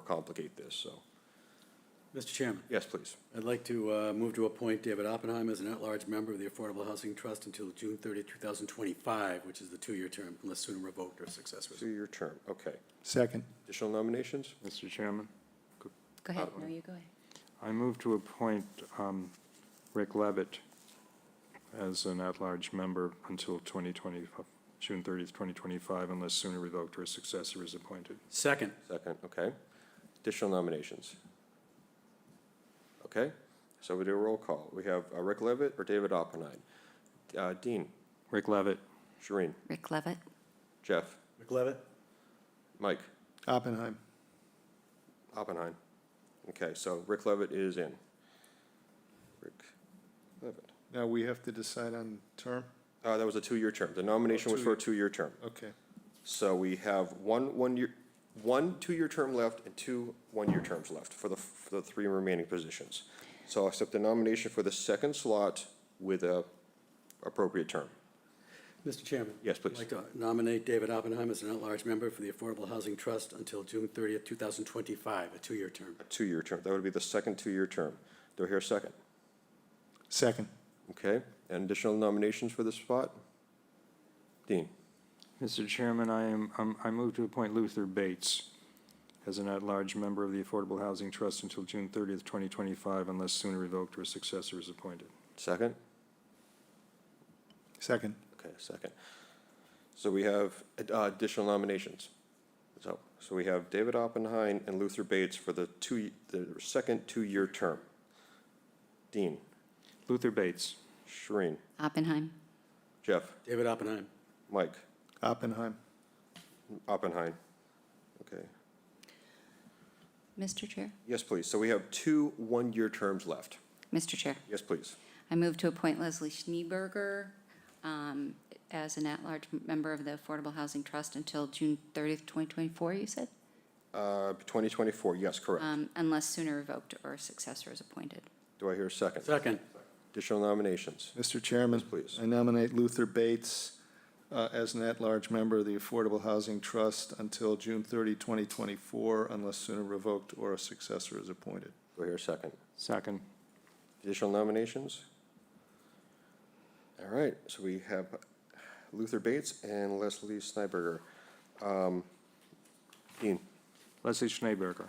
overcomplicate this, so. Mr. Chairman, Yes, please. I'd like to uh, move to appoint David Oppenheimer as an at-large member of the Affordable Housing Trust until June 30, 2025, which is the two-year term, unless sooner revoked or successor is Two-year term, okay. Second. Additional nominations? Mr. Chairman, Go ahead, Oh, no, you go ahead. I move to appoint um, Rick Levitt as an at-large member until 2020, June 30th, 2025, unless sooner revoked or a successor is appointed. Second, Second, okay. Additional nominations? Okay, so we do a roll call. We have uh, Rick Levitt or David Oppenheim? Uh, Dean, Rick Levitt, Shereen, Rick Levitt, Jeff, McLevitt? Mike, Oppenheim. Oppenheim. Okay, so Rick Levitt is in. Rick Levitt. Now we have to decide on term? Uh, that was a two-year term. The nomination was for a two-year term. Okay. So we have one, one year, one two-year term left and two one-year terms left for the, for the three remaining positions. So I'll accept the nomination for the second slot with a appropriate term. Mr. Chairman? Yes, I'd please. like to nominate David Oppenheimer as an at-large member for the Affordable Housing Trust until June 30, 2025, a two-year term. A two-year term. That would be the second two-year term. Do I hear a second? Second. Okay, and additional nominations for this spot? Dean, Mr. Chairman, I am, um, I move to appoint Luther Bates as an at-large member of the Affordable Housing Trust until June 30th, 2025, unless sooner revoked or a successor is appointed. second? Second. Okay, second. So we have uh, additional nominations. So, so we have David Oppenheim and Luther Bates for the two, the second two-year term. Dean, Luther Bates, Shereen, Oppenheim, Jeff, David Oppenheim, Mike, Oppenheim. Oppenheim. Okay, Mr. Chair? yes, please. So we have two one-year terms left. Mr. Chair, Yes, please. I move to appoint Leslie Schneeberger um, as an at-large member of the Affordable Housing Trust until June 30th, 2024, you said? Uh, 2024, yes, correct. Um, Unless sooner revoked or a successor is appointed. Do I hear a second? second. Additional nominations? Mr. Chairman. please. I nominate Luther Bates uh, as an at-large member of the Affordable Housing Trust until June 30, 2024, unless sooner revoked or a successor is appointed. Do I hear a second? second. Additional nominations? All right, so we have Luther Bates and Leslie Snyberger. Um, Dean, Leslie Schneeberger,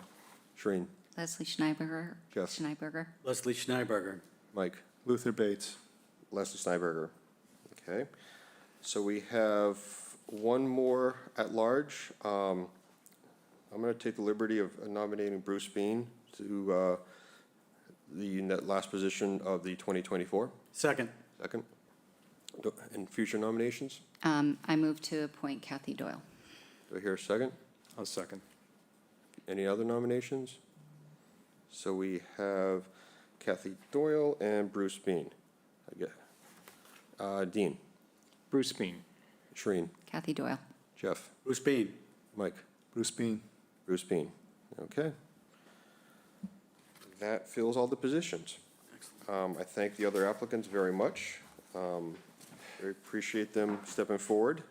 Shereen, Leslie Schneeberger? Jeff. Schneeberger, Leslie Schneiberger, Mike, Luther Bates. Leslie Snyberger. Okay, so we have one more at large. Um, I'm going to take the liberty of nominating Bruce Bean to uh, the net last position of the 2024 second. second. Do- And future nominations? Um, I move to appoint Kathy Doyle. Do I hear a second? I'll second. Any other nominations? So we have Kathy Doyle and Bruce Bean. I get- Uh, Dean, Bruce Bean, Shereen, Kathy Doyle. Jeff, Bruce Bean, Mike, Bruce Bean. Bruce Bean. Okay. That fills all the positions. Um, I thank the other applicants very much. Um, I appreciate them stepping forward,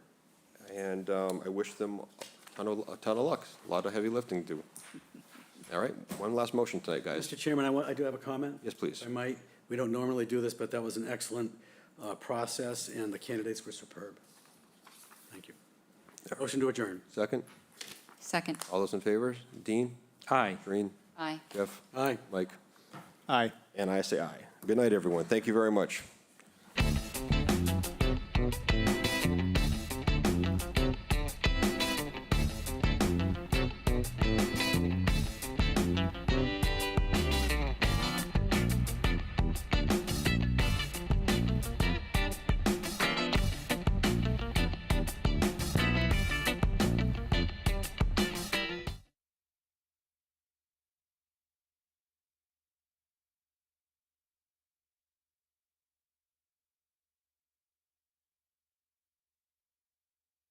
and um, I wish them a ton of, a ton of luck. A lot of heavy lifting to do. All right, one last motion tonight, guys. Mr. Chairman, I want, I do have a comment. Yes, please. I might, we don't normally do this, but that was an excellent uh, process, and the candidates were superb. Thank you. Motion to adjourn. Second? Second. All those in favor? Dean, aye. Green, Aye. Jeff, Aye. Mike, Aye. and I say aye. Good night, everyone. Thank you very much.